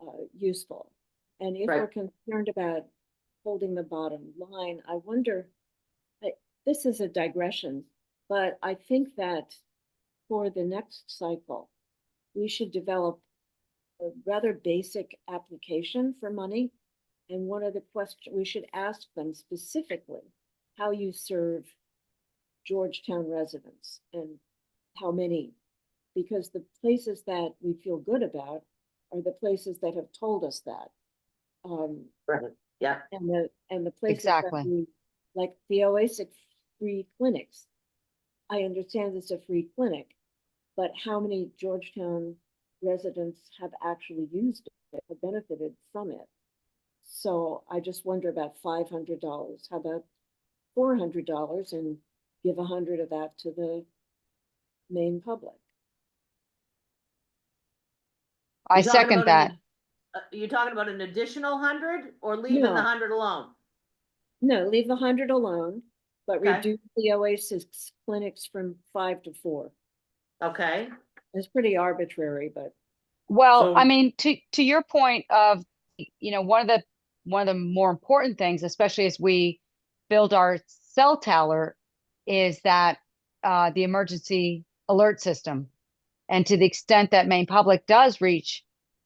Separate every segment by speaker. Speaker 1: uh, useful. And if
Speaker 2: Right.
Speaker 1: we're concerned about holding the bottom line, I wonder, I- this is a digression, but I think that for the next cycle, we should develop a rather basic application for money. And one of the question, we should ask them specifically how you serve Georgetown residents and how many. Because the places that we feel good about are the places that have told us that. Um,
Speaker 2: Yeah,
Speaker 1: and the, and the places. that
Speaker 3: Exactly.
Speaker 1: we- Like the Oasis free clinics. I understand it's a free clinic, but how many Georgetown residents have actually used it, have benefited from it? So I just wonder about five hundred dollars, how about four hundred dollars and give a hundred of that to the main public?
Speaker 3: I
Speaker 2: You're talking
Speaker 3: second
Speaker 2: about an-
Speaker 3: that.
Speaker 2: uh, you're talking about an additional hundred or leaving the
Speaker 1: No.
Speaker 2: hundred alone?
Speaker 1: No, leave the hundred alone, but
Speaker 2: Okay.
Speaker 1: reduce the Oasis clinics from five to four.
Speaker 2: Okay,
Speaker 1: It's pretty arbitrary, but
Speaker 3: Well, I
Speaker 2: So-
Speaker 3: mean, to to your point of, you know, one of the one of the more important things, especially as we build our cell tower, is that uh, the emergency alert system, and to the extent that Maine Public does reach,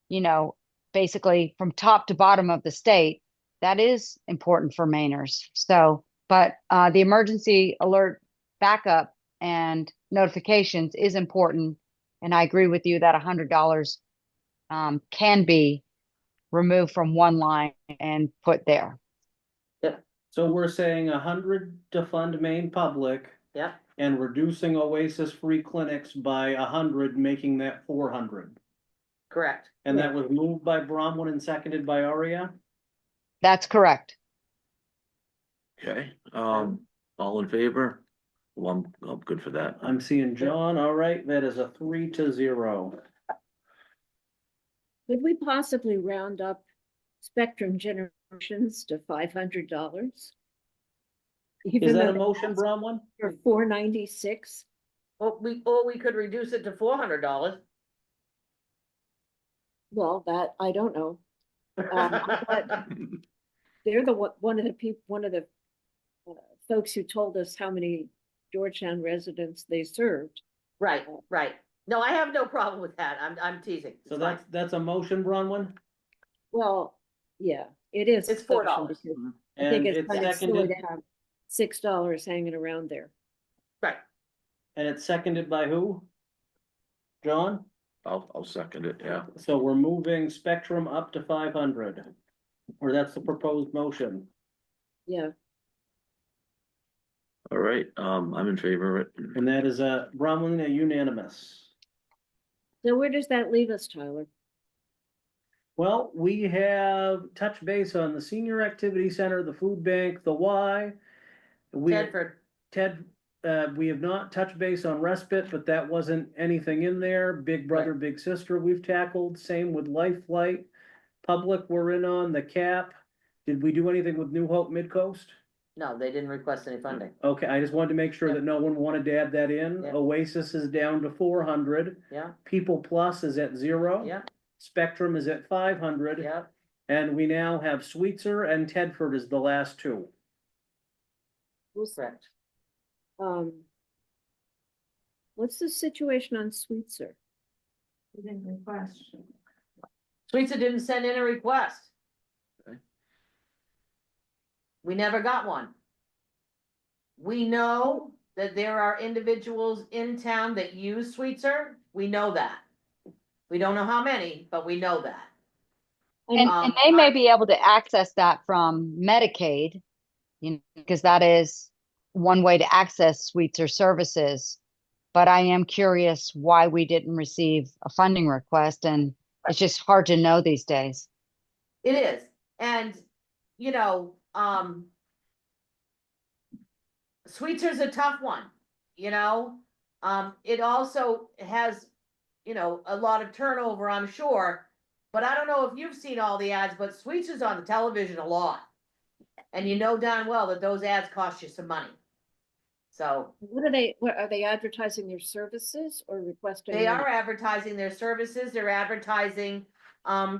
Speaker 3: you know, basically from top to bottom of the state, that is important for Mainers. So, but uh, the emergency alert backup and notifications is important. And I agree with you that hundred dollars um, can be removed from one line and put there.
Speaker 4: So we're saying a hundred to fund main public
Speaker 2: yep,
Speaker 4: and reducing Oasis free clinics by a hundred, making that four hundred.
Speaker 2: correct.
Speaker 4: And that was moved by Bronwyn and seconded by Aria.
Speaker 3: That's correct.
Speaker 5: Okay, um, all in favor? Well, I'm, I'm good for that.
Speaker 4: I'm seeing John, all right, that is a three to zero.
Speaker 1: could we possibly round up Spectrum Generations to five hundred dollars?
Speaker 4: Is that a motion, Bronwyn?
Speaker 1: For four ninety-six,
Speaker 2: Or we, or we could reduce it to four hundred dollars.
Speaker 1: well, that, I don't know. I thought- They're the one, one of the people, one of the uh, folks who told us how many Georgetown residents they served.
Speaker 2: Right, right. No, I have no problem with that. I'm, I'm teasing.
Speaker 4: So
Speaker 2: It's
Speaker 4: that's,
Speaker 2: fine.
Speaker 4: that's a motion, Bronwyn?
Speaker 1: Well, yeah, it is.
Speaker 2: It's
Speaker 1: a
Speaker 2: four
Speaker 1: section
Speaker 2: dollars.
Speaker 1: because I think
Speaker 4: And
Speaker 1: it's
Speaker 4: it's
Speaker 1: kind of silly
Speaker 4: seconded,
Speaker 1: to have six dollars hanging around there.
Speaker 2: Right,
Speaker 4: and it's seconded by who? John?
Speaker 5: I'll, I'll second it, yeah.
Speaker 4: So we're moving Spectrum up to five hundred. Or that's the proposed motion.
Speaker 1: Yeah,
Speaker 5: All right, um, I'm in favor of it.
Speaker 4: And that is a Bronwyn, a unanimous.
Speaker 1: so where does that leave us, Tyler?
Speaker 4: Well, we have touched base on the senior activity center, the food bank, the Y. We,
Speaker 2: Tedford,
Speaker 4: Ted, uh, we have not touched base on respite, but that wasn't anything in there. Big brother, big sister, we've tackled, same with life flight. Public, we're in on the cap. Did we do anything with New Hope Midcoast?
Speaker 2: no, they didn't request any funding.
Speaker 4: Okay, I just wanted to make sure
Speaker 2: Yeah.
Speaker 4: that no one wanted to add that in.
Speaker 2: Yeah.
Speaker 4: Oasis is down to four hundred.
Speaker 2: Yeah,
Speaker 4: People Plus is at zero.
Speaker 2: yeah,
Speaker 4: Spectrum is at five hundred.
Speaker 2: yeah.
Speaker 4: And we now have Sweetser and Tedford is the last two.
Speaker 1: Who's
Speaker 2: Correct.
Speaker 1: Um. What's the situation on Sweetser?
Speaker 2: Teresa didn't send in a request.
Speaker 5: Okay.
Speaker 2: We never got one. We know that there are individuals in town that use Sweetser. We know that. We don't know how many, but we know that.
Speaker 3: And,
Speaker 2: Um,
Speaker 3: and they may
Speaker 2: I-
Speaker 3: be able to access that from Medicaid, you know, because that is one way to access suites or services. But I am curious why we didn't receive a funding request, and it's just hard to know these days.
Speaker 2: It is, and, you know, um. Sweetser's a tough one, you know, um, it also has, you know, a lot of turnover, I'm sure. But I don't know if you've seen all the ads, but Sweetser's on the television a lot. And you know darn well that those ads cost you some money. So
Speaker 1: What are they, what, are they advertising their services or requesting?
Speaker 2: they
Speaker 1: money?
Speaker 2: are advertising their services, they're advertising, um,